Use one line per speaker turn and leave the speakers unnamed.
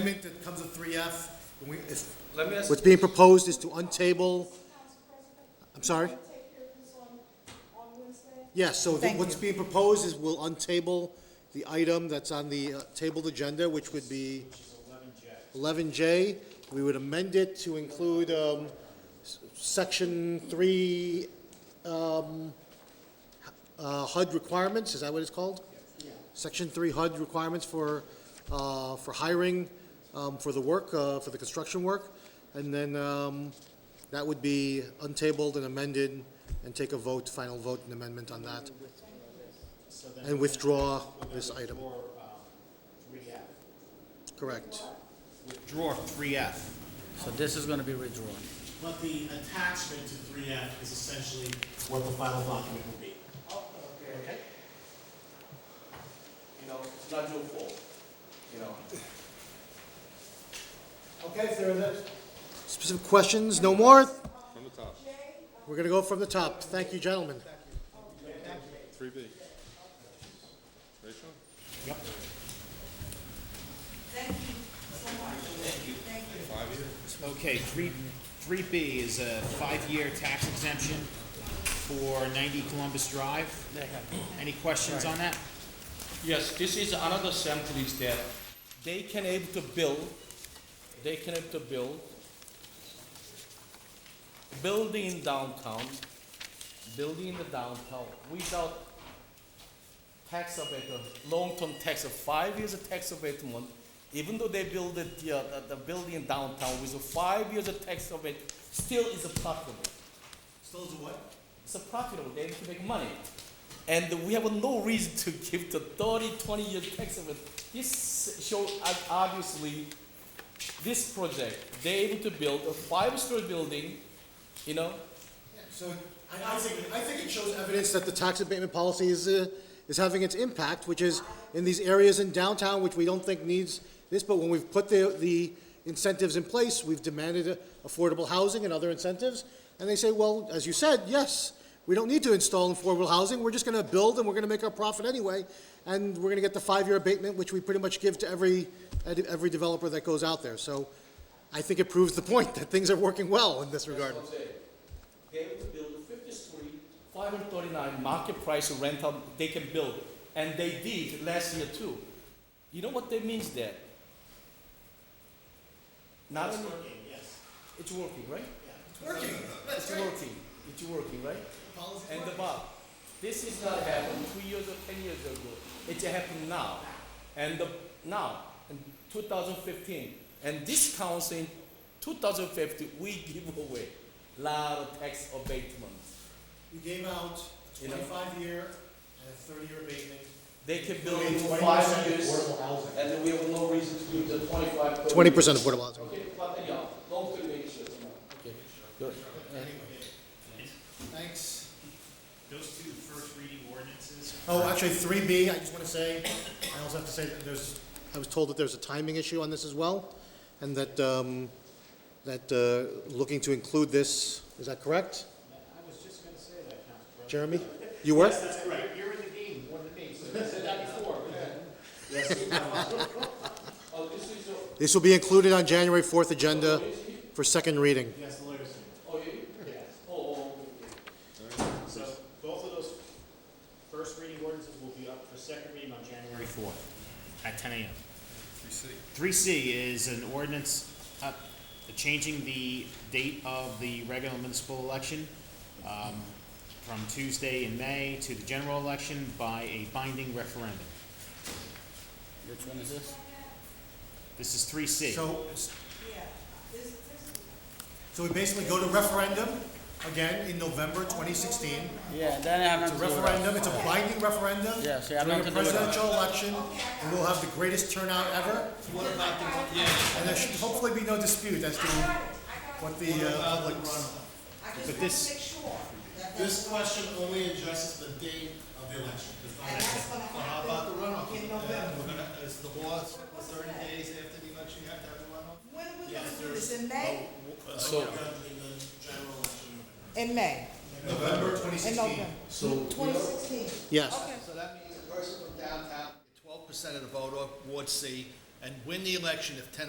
amendment that comes with three F, and we, if,
Let me ask,
what's being proposed is to untable, I'm sorry? Yes, so the-
Thank
what's
you.
being proposed is we'll untable the item that's on the uh, tabled agenda, which would be eleven J. We would amend it to include, um, s- section three, um, uh, HUD requirements, is that what it's called? Section three HUD requirements for, uh, for hiring, um, for the work, uh, for the construction work. And then, um, that would be untabled and amended and take a vote, final vote and amendment on that. And withdraw this item.
um,
Correct.
Withdraw three F.
So this is gonna be withdrawn.
But the attachment to three F is essentially what the final document will be.
Oh, okay, you know, it's not your fault, you know.
Okay, if there is
Specific questions, no more? From the top. We're gonna go from the top. Thank you, gentlemen.
Three B. Rachel?
Okay, three, three B is a five-year tax exemption for ninety Columbus Drive. Any questions on that?
Yes, this is another sample is that they can able to build, they can able to build building downtown, building the downtown without tax abatement, long-term tax of five years of tax abatement, even though they build the, the, uh, the building downtown with a five years of tax abatement, still is profitable.
Still is a what?
It's a profitable, they need to make money. And we have no reason to give the 30, 20 year tax of it. This shows obviously this project, they're able to build a five story building, you know,
So I, I think, I think it shows evidence that the tax abatement policy is, uh, is having its impact, which is in these areas in downtown, which we don't think needs this, but when we've put the, the incentives in place, we've demanded uh, affordable housing and other incentives, and they say, well, as you said, yes, we don't need to install affordable housing, we're just gonna build and we're gonna make our profit anyway, and we're gonna get the five-year abatement, which we pretty much give to every, uh, every developer that goes out there, so I think it proves the point that things are working well in this regard.
They able to build a 50 story, 539 market price rental, they can build. And they did last year too. You know what that means there? Not only,
Yes.
it's working, right? It's working, it's working, right? And above, this is not happened two years or ten years ago, it happened now, and the, now, in two thousand fifteen, and this council in two thousand fifteen, we give away lot of tax abatements.
We gave out a
You know?
twenty-five year and a thirty-year abatement.
They can build for five years, and then we have no reason to give the twenty-five. per
Twenty
year.
percent affordable housing.
Okay, but anyhow, long term issues, okay, good.
Thanks.
Those two first reading ordinances
Oh, actually, three B, I just wanna say, I also have to say that there's, I was told that there's a timing issue on this as well, and that, um, that, uh, looking to include this, is that correct?
I was just gonna say that, Council President.
Jeremy? You were?
That's correct. You're in the game more than me, so you said that before.
Oh, this is, your-
This will be included on January fourth agenda for second reading.
Yes, the lawyer's.
oh, you, oh, oh, okay.
So both of those first reading ordinances will be up for second reading on January fourth at ten AM.
Three C.
Three C is an ordinance up, changing the date of the regular municipal election um, from Tuesday in May to the general election by a binding referendum.
Which one is this?
This is three C.
So. So we basically go to referendum again in November twenty sixteen.
Yeah, then I have
It's
to
a referendum, it's a binding referendum.
Yeah, see, I'm not
During a
gonna do it.
presidential election, and we'll have the greatest turnout ever. And there should hopefully be no dispute as to what the uh, public's.
But this,
This question only addresses the date of the election. How about the runoff? In November. Is the law thirty days after the election, you have to have a runoff?
When are we gonna do this, in May?
So,
In May,
November twenty
in November,
So.
twenty sixteen.
Yes,
So that means a person from downtown, twelve percent of the vote, or Ward C, and win the election if ten